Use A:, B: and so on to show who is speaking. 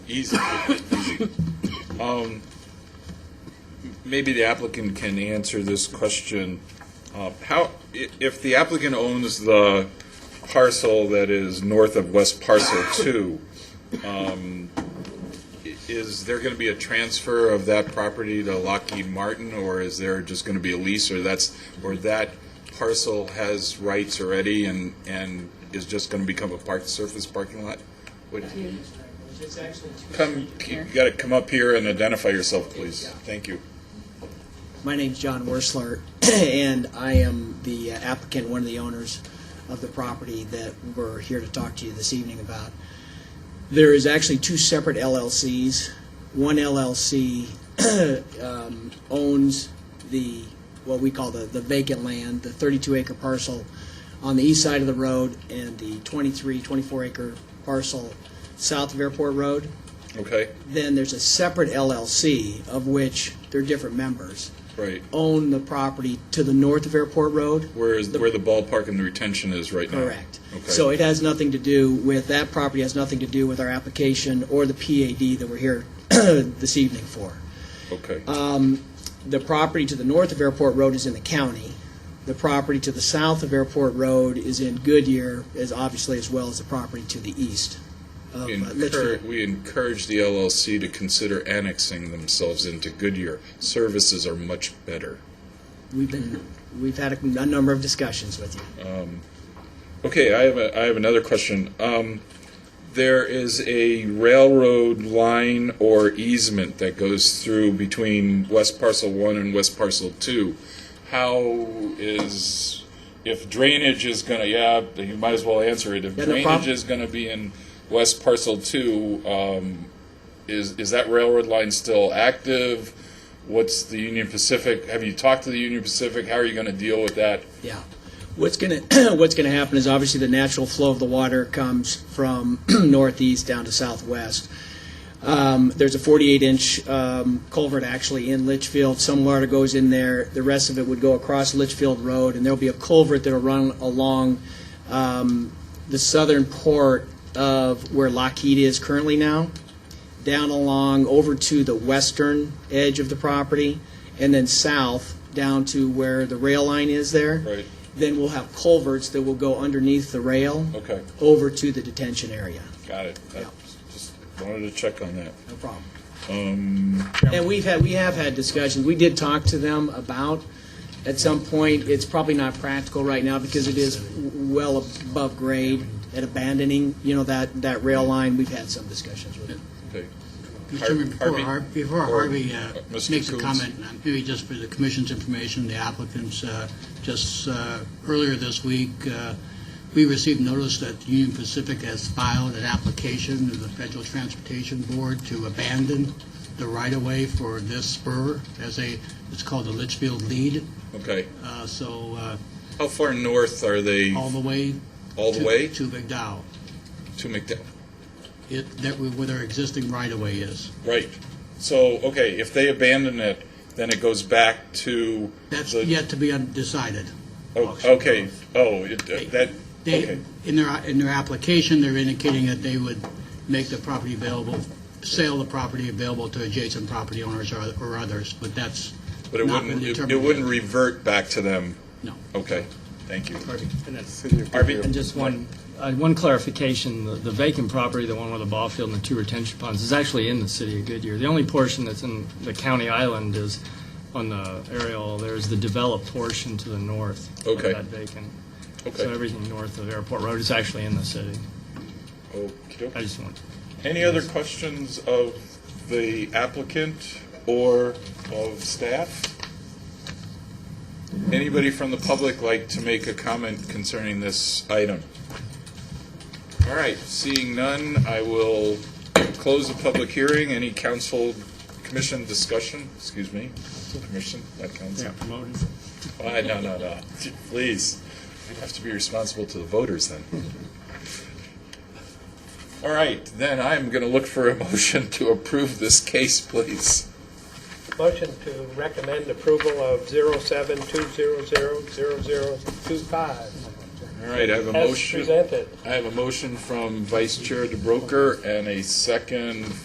A: easy. easy. Um, maybe the applicant can answer this question. Uh, How, i- if the applicant owns the parcel that is north of West Parcel Two, um, i- is there going to be a transfer of that property to Lockheed Martin, or is there just going to be a lease, or that's, or that parcel has rights already and, and is just going to become a park, surface parking lot? What-
B: It's actually two.
A: Come, you got to come up here and identify yourself, please. Thank you.
B: My name's John Worsler, and I am the uh, applicant, one of the owners of the property that we're here to talk to you this evening about. There is actually two separate LLCs. One LLC um, owns the, what we call the the vacant land, the 32-acre parcel on the east side of the road, and the 23, 24-acre parcel south of Airport Road.
A: Okay?
B: Then there's a separate LLC, of which they're different members.
A: Right.
B: own the property to the north of Airport Road.
A: Where is, where the ballpark and the retention is right now?
B: Correct. So
A: Okay.
B: it has nothing to do with, that property has nothing to do with our application or the PAD that we're here this evening for.
A: Okay.
B: uh, The property to the north of Airport Road is in the county. The property to the south of Airport Road is in Goodyear, as obviously as well as the property to the east of uh,
A: We
B: Litchfield.
A: encourage, we encourage the LLC to consider annexing themselves into Goodyear. Services are much better.
B: We've been, we've had a a number of discussions with you.
A: Okay, I have a, I have another question. Um, there is a railroad line or easement that goes through between West Parcel One and West Parcel Two. How is, if drainage is gonna, yeah, you might as well answer it. If
B: Yeah, no problem.
A: drainage is gonna be in West Parcel Two, um, is, is that railroad line still active? What's the Union Pacific, have you talked to the Union Pacific? How are you gonna deal with that?
B: Yeah. What's going to, what's going to happen is obviously the natural flow of the water comes from northeast down to southwest. Um, there's a 48-inch um, culvert actually in Litchfield. Some water goes in there. The rest of it would go across Litchfield Road, and there'll be a culvert that'll run along um, the southern port of where Lockheed is currently now, down along over to the western edge of the property, and then south down to where the rail line is there.
A: Right.
B: Then we'll have culverts that will go underneath the rail
A: Okay.
B: over to the detention area.
A: Got it. I
B: Yeah.
A: Just wanted to check on that.
B: No problem. And we've had, we have had discussions, we did talk to them about, at some point, it's probably not practical right now because it is w- well above grade at abandoning, you know, that, that rail line, we've had some discussions with them.
A: Okay.
C: Mr. Chairman, before
A: Harvey?
C: Har- before
A: Or-
C: Harvey uh,
A: uh, Mr.
C: makes a
A: Coons?
C: comment, uh, maybe just for the commission's information, the applicants, uh, just uh, earlier this week, uh, we received notice that Union Pacific has filed an application to the Federal Transportation Board to abandon the right-of-way for this spur as a, it's called the Litchfield Lead.
A: Okay.
C: Uh, So uh,
A: How far north are they?
C: all the way.
A: All the
C: to-
A: way?
C: To McDowell,
A: To McDowell?
C: it, that, where their existing right-of-way is.
A: Right. So, okay, if they abandon it, then it goes back to
C: That's
A: the-
C: yet to be undecided.
A: Oh, Okay, oh, it- that,
C: They,
A: okay,
C: in their, in their application, they're indicating that they would make the property available, sell the property available to adjacent property owners or or others, but that's
A: but it
C: not been
A: wouldn't, it-
C: determined.
A: it
C: yet.
A: wouldn't revert back to them?
C: No.
A: Okay, thank you.
D: And that's-
A: Harvey?
D: And just one, uh, one clarification, the- the vacant property, the one with the ball field and the two retention ponds, is actually in the city of Goodyear. The only portion that's in the county island is on the aerial, there's the developed portion to the north of
A: Okay.
D: that vacant.
A: Okay.
D: So everything north of Airport Road is actually in the city.
A: Okey-doke.
D: I just want,
A: Any other questions of the applicant or of staff? Anybody from the public like to make a comment concerning this item? All right, seeing none, I will close the public hearing. Any council, commission discussion, excuse me, commission, not council.
D: promoted.
A: Why, no, no, no, please. You'd have to be responsible to the voters then. All right, then I'm going to look for a motion to approve this case, please.
E: Motion to recommend approval of 072000025
A: All right, I have a
E: as
A: motion.
E: presented.
A: I have a motion from Vice Chair DeBroker and a second